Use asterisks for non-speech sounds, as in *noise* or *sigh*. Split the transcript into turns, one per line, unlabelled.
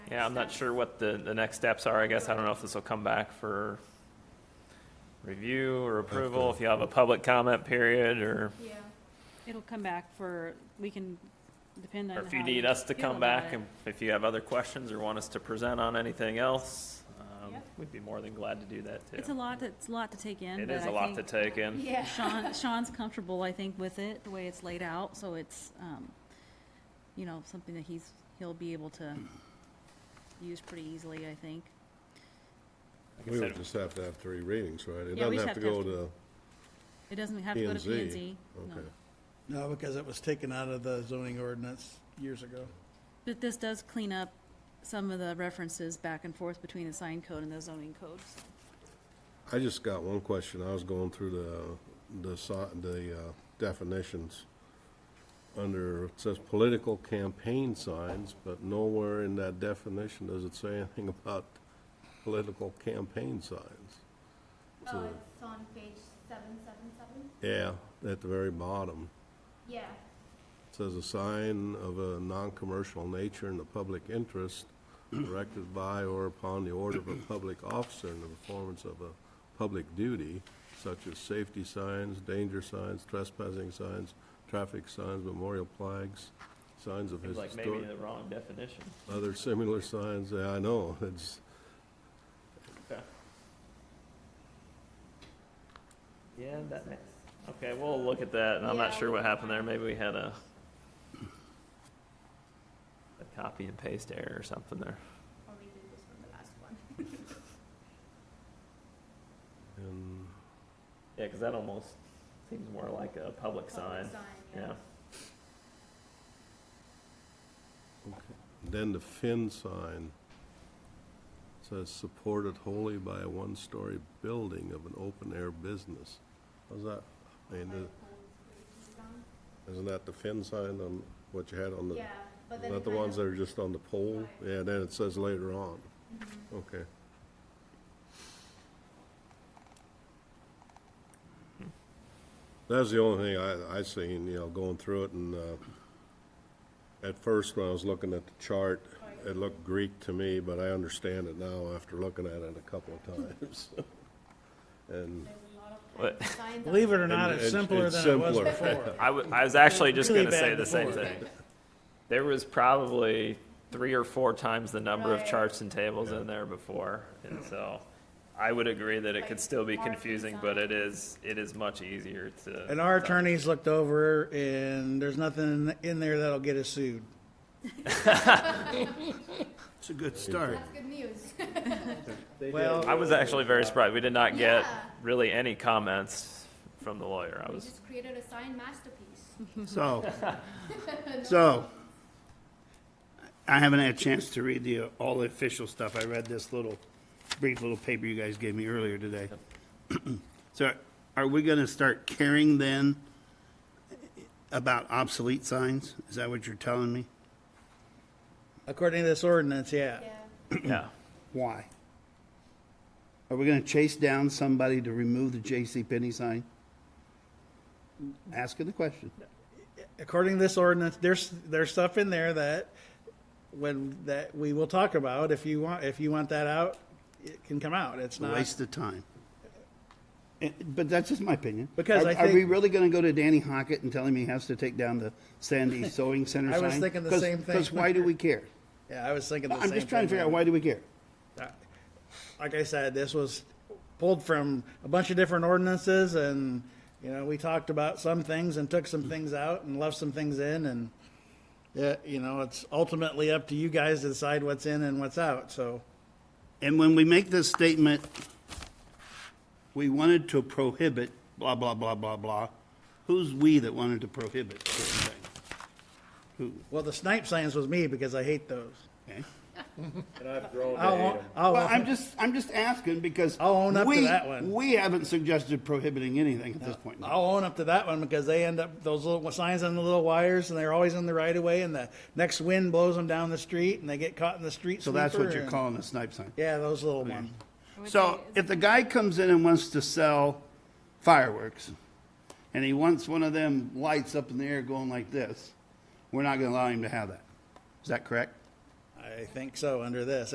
Yeah, I'm not sure what the, the next steps are, I guess. I don't know if this will come back for review or approval, if you have a public comment period, or,
Yeah,
It'll come back for, we can depend on.
or if you
how
need us to
feel
come
about
back,
it.
and if you have other questions or want us to present on anything else, um,
Yep.
we'd be more than glad to do that, too.
It's a lot, it's a lot to take in.
It
but
is
I
a lot to
think
take in.
yeah.
Sean, Sean's comfortable, I think, with it, the way it's laid out, so it's, um, you know, something that he's, he'll be able to use pretty easily, I think.
Like I
We would
said,
just have to have three readings, right? It
Yeah, we
doesn't
just
have to go to,
It doesn't have to go to P
P&Z,
and Z.
okay.
No, because it was taken out of the zoning ordinance years ago.
But this does clean up some of the references back and forth between the sign code and the zoning codes.
I just got one question. I was going through the, the, si- the uh, definitions. Under, it says political campaign signs, but nowhere in that definition does it say anything *laughs* about political campaign signs.
Oh,
So-
it's on page seven seven seven?
Yeah, at the very bottom.
Yeah,
Says a sign of a non-commercial nature in the public interest erected by or upon the order of a public officer in the performance of a public duty, such as safety signs, danger signs, trespassing signs, traffic signs, memorial flags, signs of
Seems like
historic,
maybe the wrong definition.
other similar signs, yeah, I know, it's,
Okay. Yeah, that makes, okay, we'll look at that, and I'm not
Yeah,
sure
we
what
can
happened there,
find it.
maybe we had a a copy and paste error or something there.
or we did this from the last one.
and
Yeah, because that almost seems more like a public
Oh,
sign,
Public
yeah.
Then the Finn sign says supported wholly by a one-story building of an open-air business. How's that? I mean,
Like
is-
old school design.
isn't that the Finn sign on what you had on the?
Yeah, but then.
Not the
kind
ones
of-
that are just on the pole?
Right.
Yeah, then it says later on.
Mhm.
Okay. That was the only thing I, I seen, you know, going through it and, uh, at first when I was looking at the chart, it looked Greek to me, but I understand it now after looking at it a couple of times. *laughs* And
There's a lot of
What-
kinds of signs on
Believe it
there.
or not,
And
it's
it's-
simpler
it's
than it was
simpler.
*laughs*
before.
I wa- I was actually just
Really
gonna say
bad
the same
before.
thing. There was probably three or four times the number of
Right.
charts and tables in there before, and so I would agree that it
Like
could still be
marking
confusing, but
signs.
it is, it is much easier to.
And our
to-
attorneys looked over and there's nothing in there that'll get us sued.
It's a good start.
That's good news. *laughs*
Well,
I was actually very surprised. We did not get
Yeah.
really any comments from the lawyer. I
We
was,
just created a sign masterpiece.
So, so, I haven't had a chance to read the, uh, all the official stuff. I read this little, brief little paper you guys gave me earlier today. *clears throat* So are we gonna start caring then about obsolete signs? Is that what you're telling me?
According to this ordinance, yeah.
Yeah.
yeah.
Why? Are we gonna chase down somebody to remove the J.C. Penney sign? Asking the question.
According to this ordinance, there's, there's stuff in there that when, that we will talk about. If you want, if you want that out, it can come out. It's
It's a
not.
waste of time. And- Eh, But that's just my opinion.
Because
Are-
I
Are we
think-
really gonna go to Danny Hockett and tell him he has to take down the *laughs* Sandy Sewing Center
I
sign?
was thinking the same thing.
Because why do we *laughs* care?
Yeah, I was thinking the same
I'm just trying to
thing.
figure out, why do we care?
like I said, this was pulled from a bunch of different ordinances and, you know, we talked about some things and took
Mm-hmm.
some things out and left some things in and, yeah, you know, it's ultimately up to you guys to decide what's in and what's out, so.
And when we make this statement, we wanted to prohibit blah, blah, blah, blah, blah. Who's "we" that wanted to prohibit certain things? Who?
Well, the snipe signs was me because I hate those.
Okay.
I'll,
Well,
I'll,
I'm just, I'm just asking because.
I'll own up to
we-
that one.
We haven't suggested prohibiting anything at this point. in time.
I'll own up to that one because they end up, those little signs on the little wires and they're always in the right of way and the next wind blows them down the street and they get caught in the street
So that's what
sweeper
you're
and-
calling Oh, a snipe sign?
Yeah, those little ones.
I would
So
say-
if the guy comes in and wants to sell fireworks, and he wants one of them lights up in the air going like this, we're not gonna allow him to have that. Is that correct?
I think so, under this.